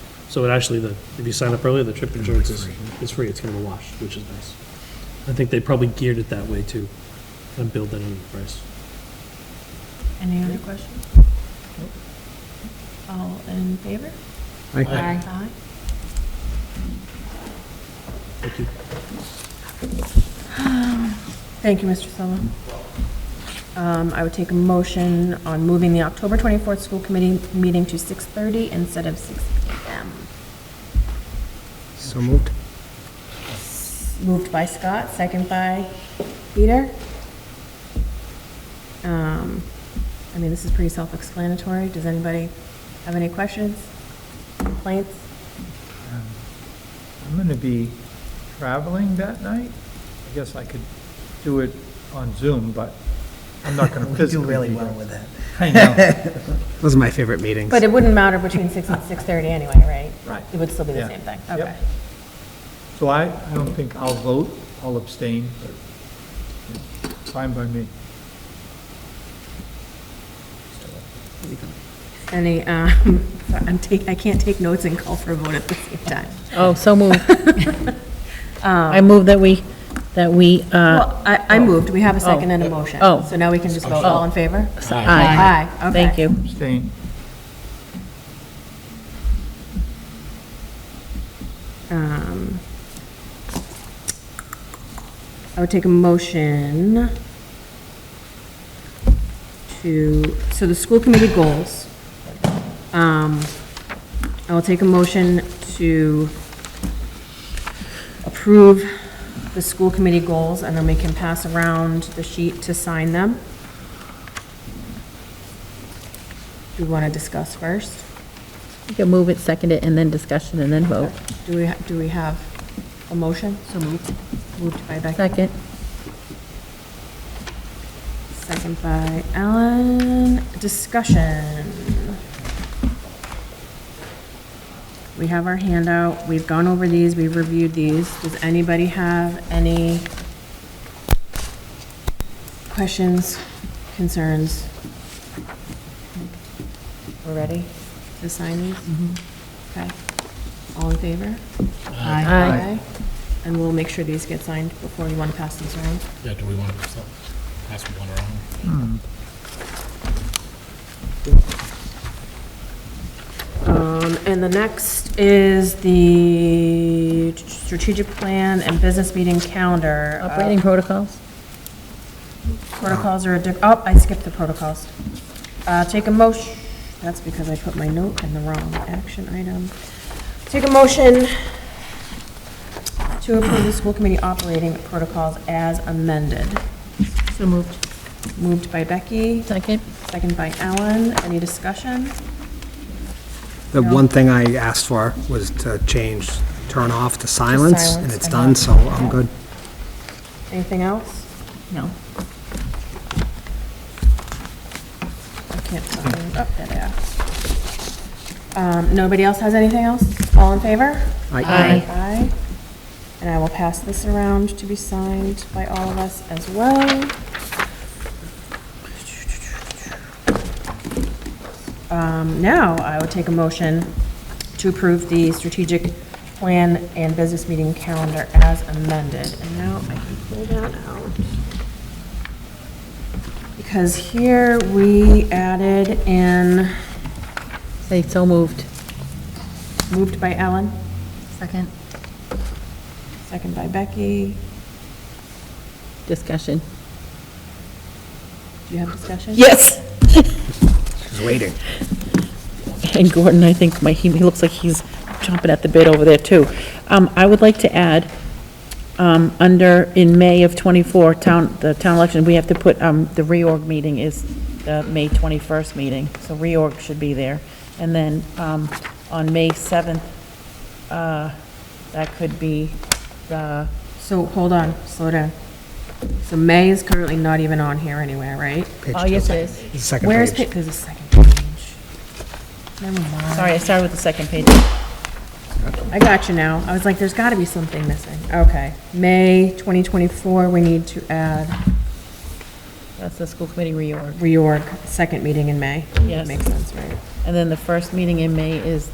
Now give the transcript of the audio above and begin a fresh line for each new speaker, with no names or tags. So it actually, the, if you sign up early, the trip insurance is, is free, it's kind of a wash, which is nice. I think they probably geared it that way too, and build that into the price.
Any other questions? All in favor?
Aye.
Aye.
Thank you.
Thank you, Mr. Solo. Um, I would take a motion on moving the October 24th school committee meeting to 6:30 instead of 6 PM.
So moved.
Moved by Scott, second by Peter. Um, I mean, this is pretty self-explanatory. Does anybody have any questions, complaints?
I'm going to be traveling that night. I guess I could do it on Zoom, but I'm not going to
We do
physically.
really
be
well
there.
with that.
I know,
Those are my favorite meetings.
But it wouldn't matter between 6 and 6:30 anyway, right?
right.
It would still be the
Yeah.
same thing.
Yep.
Okay.
So I, I don't think I'll vote, I'll abstain, but it's fine by me.
Any, um, I'm take, I can't take notes and call for a vote at the same time.
Oh, so moved. I move that we, that we, uh,
Well, I, I moved, we have a second and a motion.
Oh.
So now we can just vote, all in favor?
aye.
Aye, okay.
Thank you.
Abstain.
Um, I would take a motion to, so the school committee goals. Um, I will take a motion to approve the school committee goals, and then we can pass around the sheet to sign them. Do we want to discuss first?
You can move it, second it, and then discussion, and then vote.
Do we, do we have a motion? So moved. Moved by Becky.
Second.
Second by Ellen. Discussion. We have our handout. We've gone over these. We've reviewed these. Does anybody have any questions, concerns? We're ready to sign these? Okay. All in favor?
Aye.
And we'll make sure these get signed before you want to pass these around.
Yeah, do we want to pass one around?
Um, And the next is the strategic plan and business meeting calendar. Uh,
Operating protocols?
Protocols are, addic- oh, I skipped the protocols. Uh, Take a motion, that's because I put my note in the wrong action item. Take a motion to approve the school committee operating protocols as amended.
So moved.
Moved by Becky,
Second?
second by Ellen. Any discussion?
The one thing I asked for was to change turn off to silence, and
silence,
it's
I
done,
know.
so I'm good.
Anything else?
No.
I can't find, oh, there they are. Um, Nobody else has anything else? All in favor?
I-
Aye.
Aye. And I will pass this around to be signed by all of us as well. Um, Now, I would take a motion to approve the strategic plan and business meeting calendar as amended. And now I can pull that out. Because here we added in,
Say, so moved.
moved by Ellen,
Second.
second by Becky.
Discussion.
Do you have discussion?
Yes.
She's waiting.
And Gordon, I think, my, he he looks like he's chomping at the bit over there, too. Um, I would like to add, um, under, in May of '24, town, the town election, we have to put, um, the reorg meeting is the May 21st meeting, so reorg should be there. And then um, on May 7th, uh, that could be uh, the,
So, hold on, slow down. So May is currently not even on here anywhere, right?
Page
oh,
two.
yes, it is.
The Second
Where's,
page.
pa- there's a second page. Never mind.
Sorry, I started with the second page.
I got you now. I was like, there's gotta be something missing. Okay. May 2024, we need to add
That's the school committee reorg.
reorg, second meeting in May.
Yes.
Makes sense, right?
And then the first meeting in May is